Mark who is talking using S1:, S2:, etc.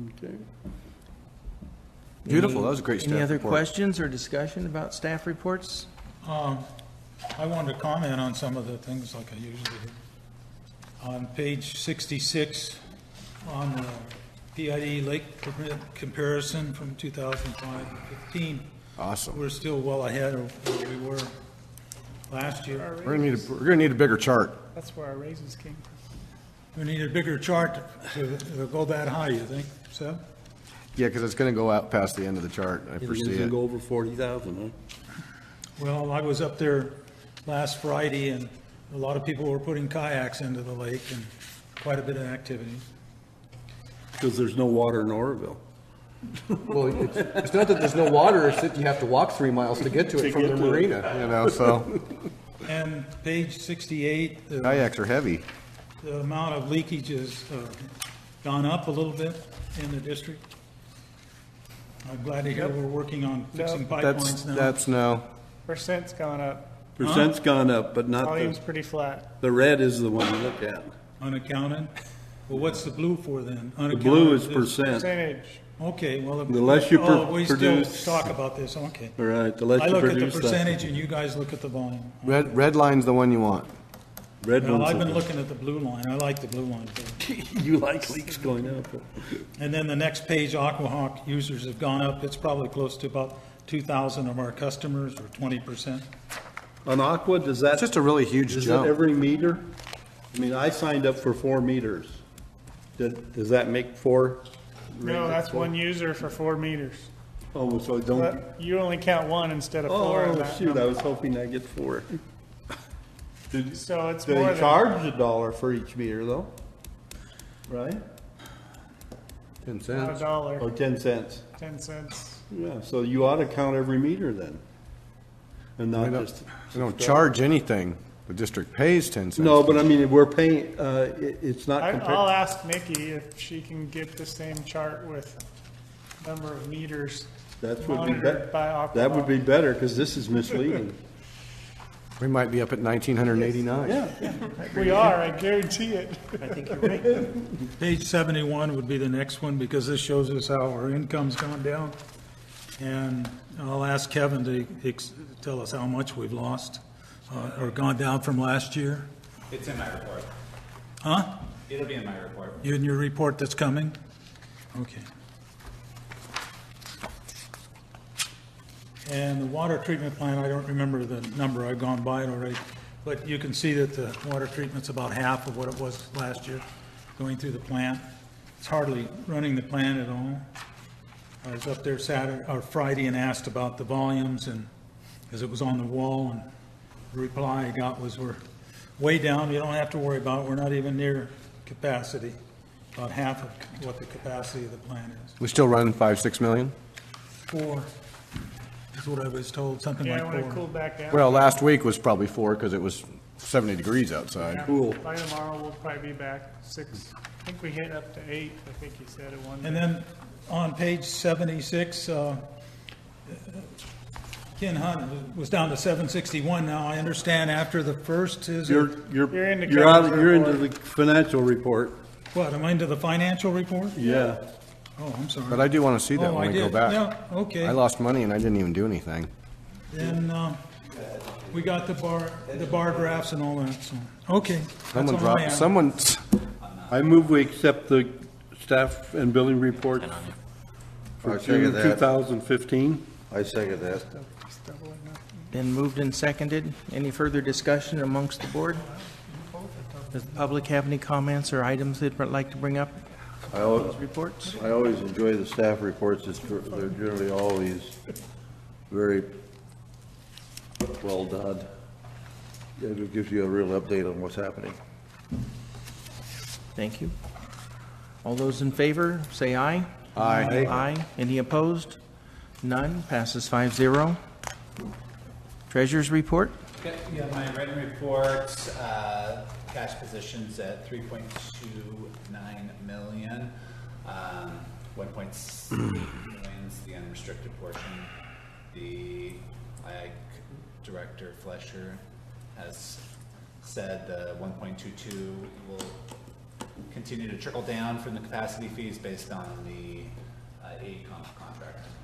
S1: Okay.
S2: Beautiful,
S1: Any-
S2: that was a great staff
S1: Any other
S2: report.
S1: questions or discussion about staff reports?
S3: I wanted to comment on some of the things like I usually do. On page 66, on the PID lake permit comparison from 2005 to 15,
S2: Awesome.
S3: we're still well ahead of where we were last year.
S2: We're gonna need, a- we're gonna need a bigger chart.
S4: That's where our raises came from.
S3: We need a bigger chart to to go that high, you think, so?
S2: Yeah, because it's gonna go out past the end of the chart, I
S1: It's
S2: foresee it.
S1: go over forty thousand,
S3: Well, I was up there last Friday, and a lot of people were putting kayaks into the lake, and quite a bit of activity.
S1: Because there's no water in Oroville.
S5: Well, it's, it's not that there's no water, it's that you have to walk three miles to get to it from the marina.
S2: You know, so
S3: And page 68, the
S2: kayaks are heavy.
S3: The amount of leakage has uh, gone up a little bit in the district. I'm glad to hear we're working on fixing
S2: That's,
S3: pipelines now.
S2: that's no,
S4: Percent's gone up,
S1: Percent's gone up, but not
S4: volume's
S1: the,
S4: pretty flat.
S1: the red is the one you look at.
S3: Unaccounted? Well, what's the blue for then?
S1: The blue is
S3: Unaccounted
S1: percent.
S4: Percentage,
S3: Okay, well.
S1: The less you
S3: oh,
S1: pr-
S3: we still
S1: produce-
S3: Talk about this, okay.
S1: All right, the
S3: I
S1: less you
S3: look at the
S1: produce that.
S3: percentage and you guys look at the volume.
S2: red, red line's the one you want.
S1: Red
S3: Well, I've been
S1: ones,
S3: looking at the blue line. I like the blue line. better.
S1: you like leaks going up.
S3: And then the next page, Aquahawk users have gone up. It's probably close to about 2,000 of our customers or 20%.
S1: On Aqua, does that?
S2: It's just a really huge
S1: Is it
S2: jump.
S1: every meter? I mean, I signed up for four meters. Does, does that make four?
S4: no, that's one user for four meters.
S1: Oh, so it don't,
S4: But you only count one instead of four in
S1: oh,
S4: that
S1: shoot, I
S4: number.
S1: was hoping I'd get four. Did-
S4: So it's
S1: They
S4: more than.
S1: charge a dollar for each meter though, right?
S2: Ten
S4: Not a
S2: cents.
S4: dollar,
S1: Or ten cents?
S4: ten cents.
S1: Yeah, so you ought to count every meter then. And
S2: We
S1: not
S2: don't-
S1: just.
S2: we don't charge anything. The district pays ten cents.
S1: No, but I mean, we're paying, uh, it, it's not
S4: I, I'll
S1: compared.
S4: ask Nikki if she can get the same chart with number of meters
S1: That would be
S4: monitored by
S1: better.
S4: Aquahawk.
S1: That would be better, cause this is misleading.
S2: We might be up at nineteen hundred and eighty-nine.
S1: Yeah.
S4: We are, I guarantee it.
S3: Page 71 would be the next one, because this shows us how our income's gone down. And I'll ask Kevin to ex- tell us how much we've lost, uh, or gone down from last year.
S6: It's in my report.
S3: Huh?
S6: It'll be in my report.
S3: In your report that's coming? Okay. And the water treatment plant, I don't remember the number, I've gone by it already, but you can see that the water treatment's about half of what it was last year, going through the plant. It's hardly running the plant at all. I was up there Saturday, or Friday and asked about the volumes and, because it was on the wall, and the reply I got was, we're way down, you don't have to worry about it, we're not even near capacity, about half of what the capacity of the plant is.
S2: We still run five, six million?
S3: Four is what I was told, something like
S4: Yeah, when it
S3: four.
S4: cooled back down,
S2: Well, last week was probably four because it was seventy degrees outside.
S1: Cool.
S4: by tomorrow, we'll probably be back six. I think we hit up to eight, I think you said at one.
S3: And then on page 76, uh, Ken Hunt was down to 761 now. I understand after the first is,
S1: You're, you're,
S4: You're into
S1: you're out,
S4: Kevin's
S1: you're into the
S4: report.
S1: financial report.
S3: what, am I into the financial report?
S1: Yeah.
S3: Oh, I'm sorry.
S2: But I do want to see that
S3: Oh,
S2: when
S3: I
S2: we go
S3: did.
S2: back.
S3: Yeah, okay.
S2: I lost money and I didn't even do anything.
S3: Then, uh, we got the bar, the bar graphs and all that, so, okay. that's
S2: Someone
S3: all I
S2: dropped,
S3: have.
S2: someone,
S1: I move we accept the staff and building reports for
S7: I'll second
S1: June
S7: that.
S1: 2015.
S7: I second that.
S8: Been moved and seconded. Any further discussion amongst the board? Does the public have any comments or items they'd like to bring up?
S7: I al-
S8: Reports?
S7: I always enjoy the staff reports, It's gr- they're generally always very well done. It gives you a real update on what's happening.
S8: Thank you. All those in favor, say aye.
S2: Aye.
S8: Aye. Any opposed? None. Passes five zero. Treasurers report?
S6: Okay, yeah, my written report, uh, cash positions at three point two nine million. Um, one point eight million is the unrestricted portion. The like director Fleischer has said the one point two two will continue to trickle down from the capacity fees based on the uh, AECOM contract.